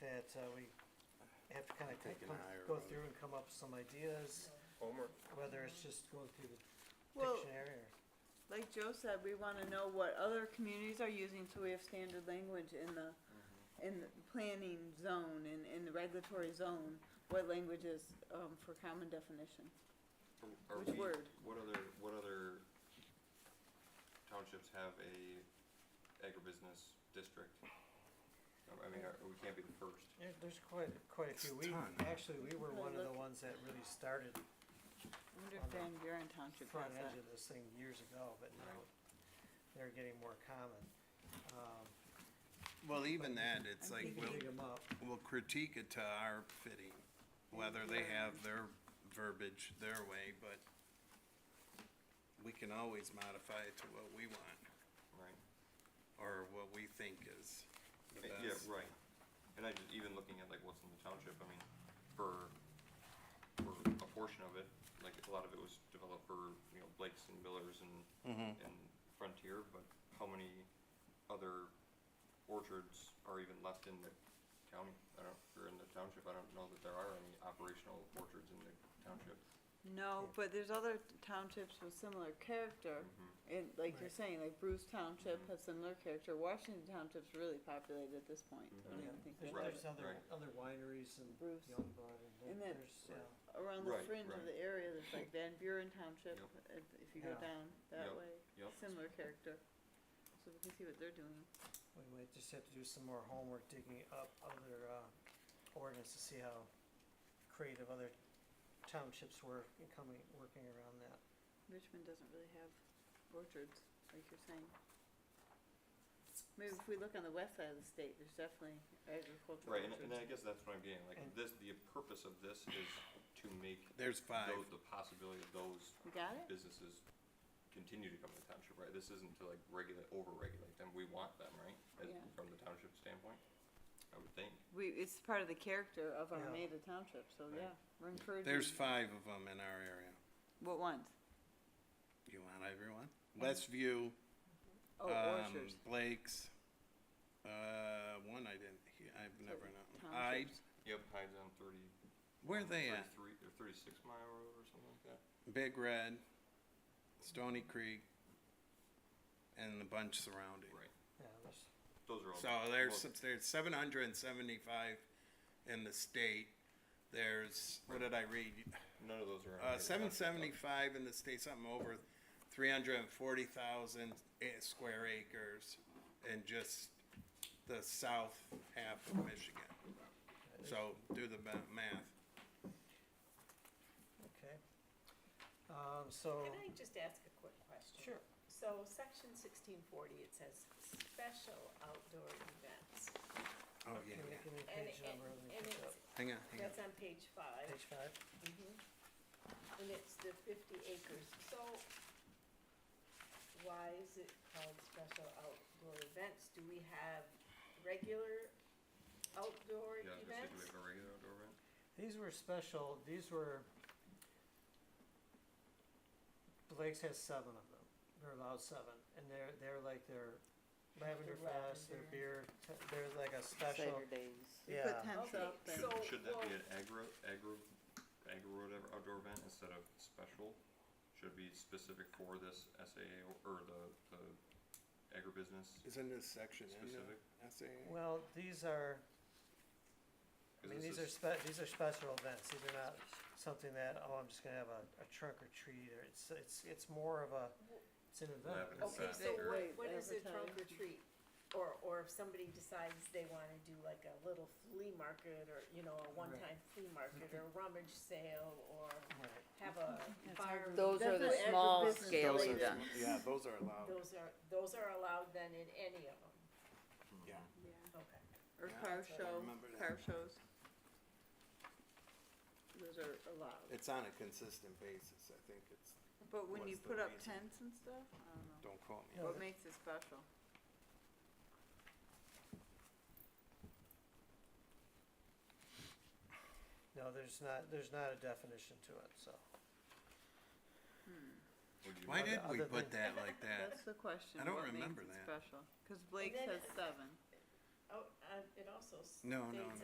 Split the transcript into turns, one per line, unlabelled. uh, we have to kinda
Take an
come-
higher
go
road.
through and come up with some ideas,
Homework.
whether it's just going through the
Well,
dictionary or.
like Joe said, we wanna know what other communities are using, so we have standard language in the, in the planning zone and in the regulatory zone, what language is, um, for common definition.
Are
Which
we-
word?
What other, what other townships have a agribusiness district? Uh, I mean, are, we can't be the first.
Yeah, there's quite, quite a
It's
few.
a
We,
ton.
actually, we were
Well,
one of the
look.
ones that really started
I wonder
On
if
the
Van Buren Township
front
has
edge
that.
of this thing years ago, but now
Right.
they're getting more common. Um,
Well, even that, it's
I'm
like,
you
thinking
we'll,
can dig 'em up.
we'll critique it to our fitting, whether they have their verbiage their way, but we can always modify it to what we want,
Right.
or what we think is the
Uh, Yeah,
best.
right. And I just, even looking at like what's in the township, I mean, for, for a portion of it, like a lot of it was developed for, you know, Blakes and Millers and, and Frontier, but how many other orchards are even left in the county? I don't, or in the township, I don't know that there are any operational orchards in the township.
No, but there's other townships with similar character,
Mm-hmm.
and like you're
Right.
saying, like Bruce Township
Mhm.
has similar character, Washington Township's really populated at this point, I don't
Yeah,
even think
Mm-hmm. There's,
there's
Right,
there's other,
right.
other wineries and
Bruce.
Youngblood and
And
there-
then-
there's, yeah.
around the
Right,
fringe
right.
of the area, there's like Van Buren Township,
Yep.
if if you go
Yeah.
down that
Yep,
way,
yep.
similar character. So we can see what they're doing.
We might just have to do some more homework, digging up other, uh, ordinance to see how creative other townships were in coming, working around that.
Richmond doesn't really have orchards, like you're saying. Maybe if we look on the west side of the state, there's definitely agricultural
Right, and,
orchards.
and I guess that's what I'm getting, like
And-
this, the purpose of this is to make
There's five.
those, the possibility of those
We got it?
businesses continue to come to the township, right? This isn't to like regulate, over-regulate them, we want them, right? As-
Yeah.
From the township standpoint, I would think.
We, it's part of the character of
Yeah.
Armada Township, so
Right.
yeah, we're encouraging.
There's five of them in our area.
What ones?
You want everyone? Westview,
Oh,
um,
orchards.
Blake's, uh, one I didn't, he- I've never known. I,
Townships.
Yep, hides on thirty.
where they at?
Thirty-three, or thirty-six mile road or something like that.
Big Red, Stony Creek, and the bunch surrounding.
Right,
Yeah, there's,
those are all.
So there's,
well,
there's seven hundred and seventy-five in the state. There's, what did I read?
None of those are.
Uh,
on the
seven
township stuff.
seventy-five in the state, something over three hundred and forty thousand square acres in just the south half of Michigan. So do the ma- math.
okay. Um, so,
Can I just ask a quick question?
sure,
So section sixteen forty, it says special outdoor events.
Oh, yeah,
can we
yeah.
give me a
And,
page
and,
number and we
and
pick
it's,
up?
Hang on, hang on.
that's on page five.
Page five?
Mhm. And it's the fifty acres, so why is it called special outdoor events? Do we have regular outdoor
Yeah, I was gonna say, do we
events?
have a regular outdoor event?
These were special, these were, Blake's has seven of them, they're allowed seven, and they're, they're like their Lavender Fest, their beer, t- they're like a special,
Cider days. We
yeah.
put tents
Okay,
up and,
so-
Should, should that be
well-
an agro, agro, agro whatever outdoor event instead of special? Should it be specific for this SAA or the, the agribusiness?
Isn't this section in the
Specific.
essay?
Well, these are, I
'Cause
mean,
this
these are
is-
spe- these are special events, these are not something that, oh, I'm just gonna have a, a trunk or treat, or it's, it's, it's more of a, it's an event.
Lavender
It's-
Okay,
Fest
so
or-
what,
Right,
what is a trunk or
advertise.
treat? Or, or if somebody decides they wanna do like a little flea market or, you know, a one-time flea market or a rummage sale or
Right.
have a
That's
fire.
agribusiness. Those are the
Definitely
small
agribusiness
scale
related.
events.
yeah, those are allowed,
Those are, those are allowed then in any of them,
yeah.
yeah,
okay.
or
Yeah,
car
I
show,
remember that.
car shows. Those are allowed,
It's on a consistent basis, I think it's,
but when you
What's the
put up
reason?
tents and stuff, I don't know,
don't quote me.
No,
what
that-
makes it special?
No, there's not, there's not a definition to it, so.
Would you
Why
Other-
did we
other
put
than-
that like that?
That's the question,
I don't
what makes
remember
it
that.
special? Cause Blake
then
says
it-
seven.
Oh, uh, it also states
No, no, no.